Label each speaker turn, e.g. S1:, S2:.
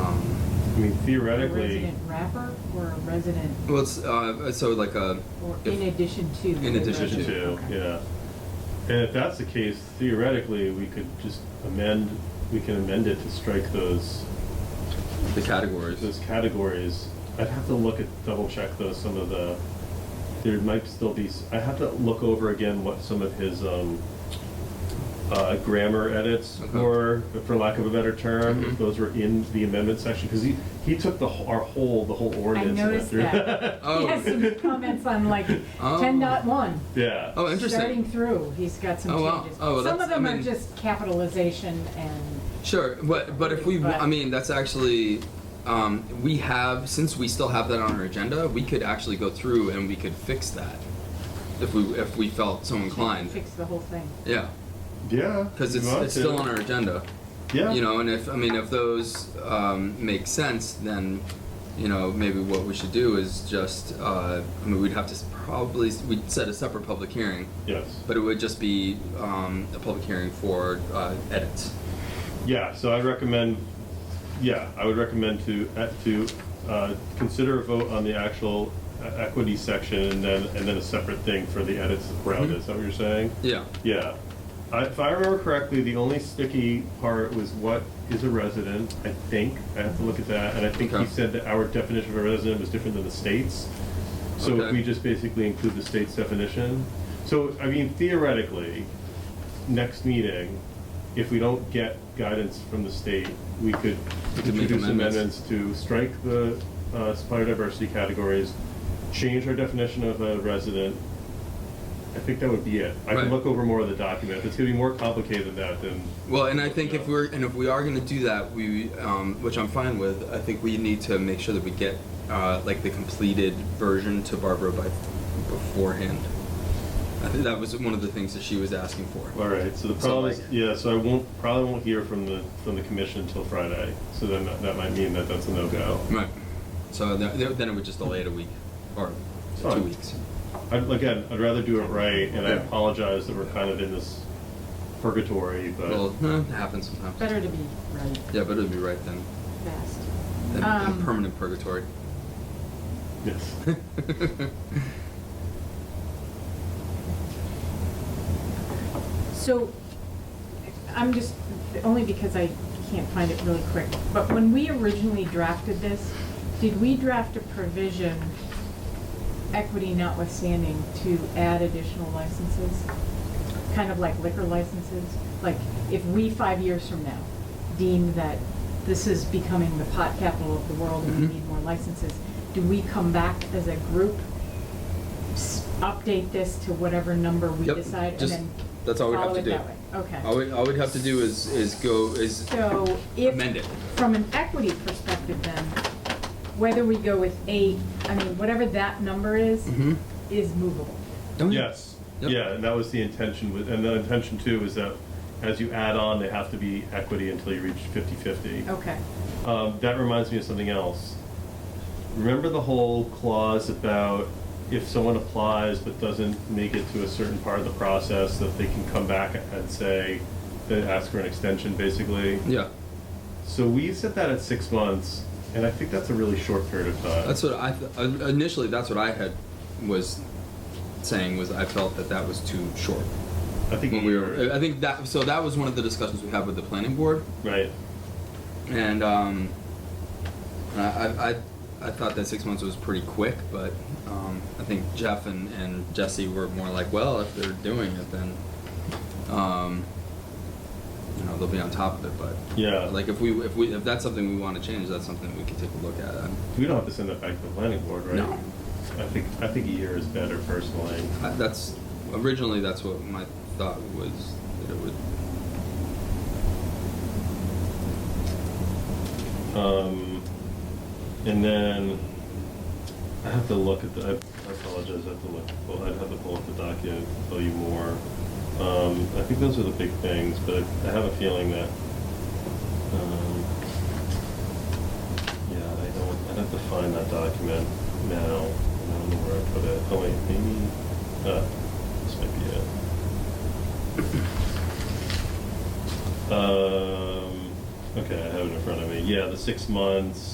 S1: I mean
S2: a
S1: theoretically,
S2: resident wrapper or a resident,
S3: Well, it's, uh, so like a.
S2: or
S3: if-
S2: in addition to?
S3: In
S2: the
S3: addition
S1: addition
S2: resident?
S1: to,
S2: Okay.
S1: yeah. And if that's the case, theoretically, we could just amend, we can amend it to strike those,
S3: The categories.
S1: those categories. I'd have to look at, double check though, some of the, there might still be, s- I have to look over again what some of his, um, uh, grammar edits
S3: Okay.
S1: were, for lack of a better term,
S3: Mhm.
S1: if those were in the amendment section, because he, he took the, wh- our whole, the whole
S2: I
S1: ordinance. and went
S2: noticed
S1: through-
S2: that.
S3: Oh.
S2: He has some comments on like
S3: Oh.
S2: ten dot one.
S1: Yeah.
S3: Oh, interesting.
S2: Starting through, he's got some
S3: Oh, wow.
S2: changes.
S3: Oh, well,
S2: Some
S3: that's-
S2: of
S3: I
S2: them are
S3: mean-
S2: just capitalization and,
S3: Sure, but but if we, wa- I mean, that's actually, um, we have since we still have that on our agenda, we could actually go through and we could fix that, if we if we felt so inclined.
S2: fix the whole thing.
S3: Yeah,
S1: Yeah.
S3: because
S1: you
S3: it's
S1: want
S3: it's still
S1: to.
S3: on our agenda.
S1: Yeah.
S3: You know, and if I mean if those um, make sense, then you know maybe what we should do is just uh, I mean we'd have to s- probably s- we'd set a separate public hearing,
S1: Yes.
S3: but it would just be um, a public hearing for uh, edits.
S1: Yeah, so I recommend, yeah, I would recommend to, uh, to uh, consider a vote on the actual uh, equity section and then, and then a separate thing for the edits around
S3: Mm-hmm.
S1: it. Is that what you're saying?
S3: Yeah.
S1: Yeah. I- If I remember correctly, the only sticky part was what is a resident, I think. I have to look at that. And I think he
S3: Okay.
S1: said that our definition of a resident was different than the state's. So if
S3: Okay.
S1: we just basically include the state's definition. So, I mean, theoretically, next meeting, if we don't get guidance from the state, we could
S3: We could make
S1: introduce amendments
S3: amendments.
S1: to strike the uh, biodiversity categories, change our definition of a resident. I think that would be it. I can
S3: Right.
S1: look over more of the document. If it's gonna be more complicated than that, then.
S3: Well, and I think if we're and if we are going to do that, we um, which I'm fine with. I think we need to make sure that we get uh, like the completed version to Barbara by beforehand. I think that was one of the things that she was asking for.
S1: All right, so the
S3: So,
S1: problem is,
S3: like-
S1: yeah, so I won't, probably won't hear from the, from the commission until Friday. So then that, that might mean that that's a no-go.
S3: Right. So th- then it would just delay it a week or
S1: It's
S3: two
S1: fine.
S3: weeks.
S1: I'd, again, I'd rather do it right, and I
S3: Yeah.
S1: apologize that we're kind of in this purgatory, but.
S3: Well, eh, it happens sometimes.
S2: Better to be right
S3: Yeah, but it would be right then.
S2: fast.
S3: Then
S2: Um,
S3: permanent purgatory.
S1: Yes.
S2: So, I'm just, only because I can't find it really quick, but when we originally drafted this, did we draft a provision, equity notwithstanding, to add additional licenses? Kind of like liquor licenses? Like, if we, five years from now, deem that this is becoming the pot capital of the world and
S3: Mhm.
S2: we need more licenses, do we come back as a group, s- update this to whatever number we
S3: Yep,
S2: decide, and
S3: just-
S2: then
S3: that's all we have
S2: follow
S3: to
S2: it
S3: do.
S2: that way? Okay.
S3: all, we, all we'd have to do is is go is
S2: So if.
S3: amend it.
S2: From an equity perspective then, whether we go with eight, I mean, whatever that number is,
S3: Mhm.
S2: is movable.
S3: Don't
S1: Yes,
S3: Yep.
S1: yeah, and that was the intention, with- and the intention too is that as you add on, they have to be equity until you reach fifty-fifty.
S2: Okay.
S1: Um, that reminds me of something else. Remember the whole clause about if someone applies but doesn't make it to a certain part of the process, that they can come back and say, they ask for an extension, basically?
S3: Yeah.
S1: So we set that at six months, and I think that's a really short period of time.
S3: That's what I th- uh, initially. That's what I had was saying was I felt that that was too short.
S1: I think
S3: When we were, I think that so that was one of the discussions we had with the planning board,
S1: Right,
S3: and um, I, I I- I thought that six months was pretty quick, but um, I think Jeff and, and Jesse were more like, well, if they're doing it, then um, you know they'll be on top of it. But
S1: yeah.
S3: like if we if we if that's something we want to change, that's something we could take a look at. I'm-
S1: We don't have to send that back to the planning board, right?
S3: No.
S1: I think, I think a year is better personally.
S3: I- That's originally that's what my thought was that it would.
S1: Um, and then I have to look at the, I- I apologize, I have to look, well, I'd have to pull up the document to tell you more. Um, I think those are the big things, but I have a feeling that, um, yeah, I don't, I'd have to find that document now. I don't know where I put it. Oh wait, maybe, uh, this might be it. Um, okay, I have it in front of me. Yeah, the six months.